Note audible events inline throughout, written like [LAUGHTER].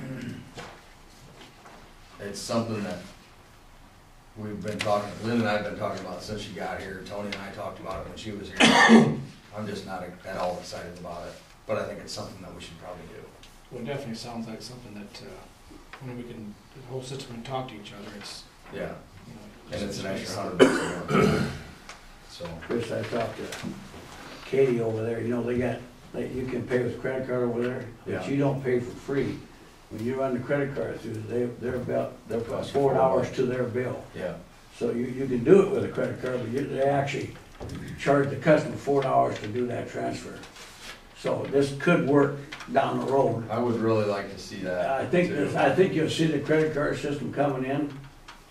[CLEARS THROAT] it's something that we've been talking, Lynn and I have been talking about since she got here, Tony and I talked about it when she was here. [COUGHS] I'm just not at all excited about it, but I think it's something that we should probably do. Well, it definitely sounds like something that, uh, when we can, the whole system can talk to each other, it's, Yeah, you know. and it's an extra hundred bucks a month. So, Chris, I talked to Katie over there, you know, they got, like, you can pay with credit card over there, Yeah. but you don't pay for free. When you run the credit card through, they, they're about, they're about Cost you four four hours bucks. to their bill. yeah, So you, you can do it with a credit card, but you, they actually charge the customer four dollars to do that transfer. So this could work down the road. I would really like to see that. I think, too. this- I think you'll see the credit card system coming in.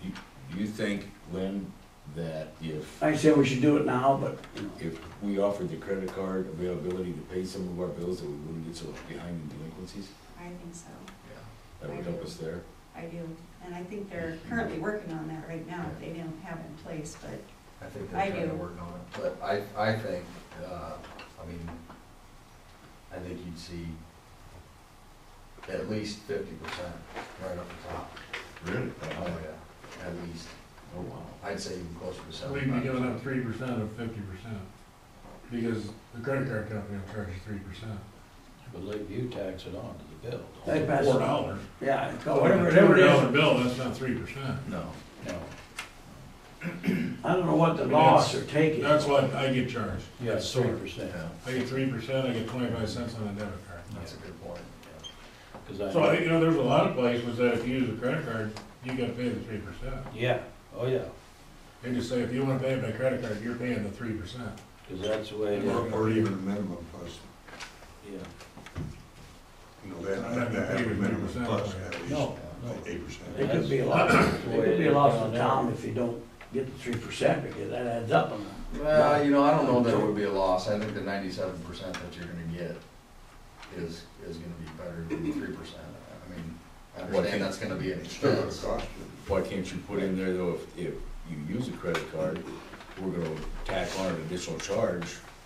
Do you think, Lynn, that if, I said we should do it now, but, you know, if we offered the credit card availability to pay some of our bills, that we wouldn't get so behind in delinquencies? I think so, Yeah. That would help us there. I do, and I think they're currently working on that right now, they don't have it in place, but I think I they're trying to do. work on it, but I, I think, uh, I mean, I think you'd see at least fifty percent right up the top. Really? Oh, Oh, yeah, at least, wow. I'd say even closer to We'd be seventy-five giving percent. up three percent of fifty percent, because the credit card company will charge you three percent. But Lakeview tax it on to the bill. they pass, Four dollars. yeah, it's called Oh, whatever, Two whatever it dollar is. bill, that's not three percent. No, No. I don't know what the loss are taking. That's what I get charged. Yeah, three percent, yeah, I get three percent, I get twenty-five cents on a debit that's a card. good point, yeah. because I. So I think, you know, there's a lot of places that if you use a credit card, you gotta pay the three percent. Yeah, oh, yeah, They just say, if you wanna pay it by credit card, you're paying the three percent. because that's the way it Or, is, or even a minimum plus, yeah. you know, that, that, that every minimum plus at least No, no. eight percent. It could be a loss, it could be a loss of town if you don't get the three percent, because that adds up on that. Well, you know, I don't know that it would be a loss, I think the ninety-seven percent that you're gonna get is, is gonna be better than three percent. I mean, I Well, I understand think- that's gonna be an Still gonna expense. cost you. Why can't you put in there though, if, if you use a credit card, we're gonna tack on an additional charge?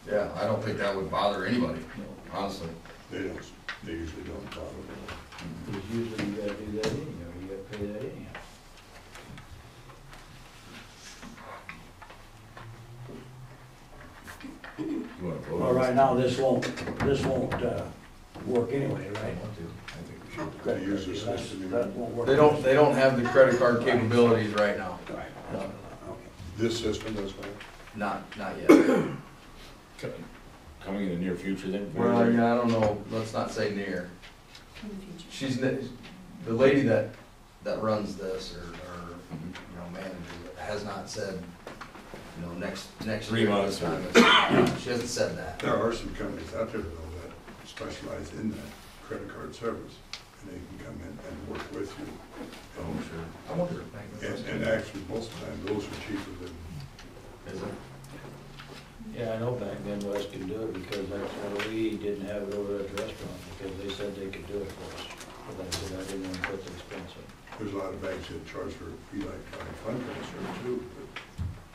Yeah, I don't think that would bother anybody, No. honestly. They don't, they usually don't bother them. Because usually you gotta do that anyhow, you gotta pay that anyhow. You wanna vote? on Well, right now, this won't, this won't, uh, work anyway, I right? want to. I think we should. Should they use this system, That even- won't work. They don't, they don't have the credit card capabilities right now. Right, that's what I thought, okay. this system is gonna, Not, not yet. Coming- Coming in the near future then? Well, yeah, I don't know, let's not say near. in the future. She's, n- the lady that, that runs this or, or, Mhm. you know, manager, has not said, you know, next, next. Three year, months this time is- [COUGHS] She hasn't said that. there are some companies out there though that specialize in that credit card service. And they can come in and work with you. Oh, sure. I wonder. if Magna does. And, and actually, most of the time, those are cheaper than, Is it? Yeah, I know back then Wes could do it because that's why we didn't have it over at the restaurant, because they said they could do it for us. But I said I didn't want to put the expense on. there's a lot of banks that charge for fee like county fund transfer too.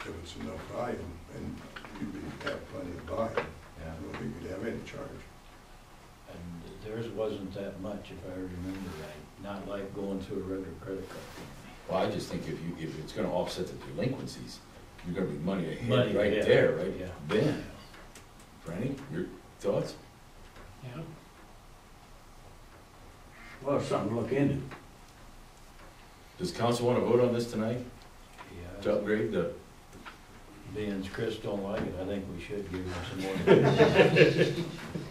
But if it's enough volume, and you'd be- have plenty of volume, I Yeah. don't think you'd have any charge. And theirs wasn't that much, if I remember right, not like going through a regular credit card. Well, I just think if you, if it's gonna offset the delinquencies, you're gonna be money Money, ahead right yeah, there, right? yeah. Then, Franny, your thoughts? Yeah. Well, it's something to look into. Does council wanna vote on this tonight Yeah, to upgrade the? being as Chris don't like it, I think we should give him some [LAUGHS] more.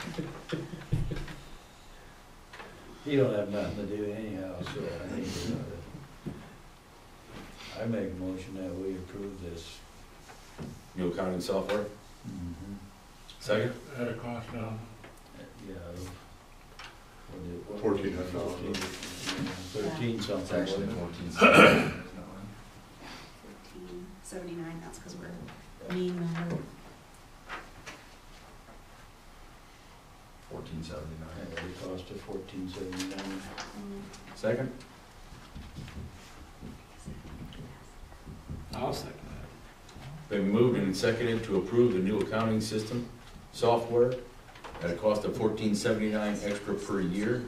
He don't have nothing to do anyhow, so I think we ought to- I make a motion that we approve this. New accounting software, Mm-hmm. second? At a cost down. Yeah. what did- Fourteen hundred dollars. Thirteen It's something, actually wasn't it? fourteen. seconds. Fourteen seventy-nine, that's because we're mean [COUGHS] number. Fourteen seventy-nine. Yeah, It cost of fourteen seventy-nine. um, Second? I'll second Been moved and seconded to approve the new accounting system software at a cost of fourteen seventy-nine extra per year.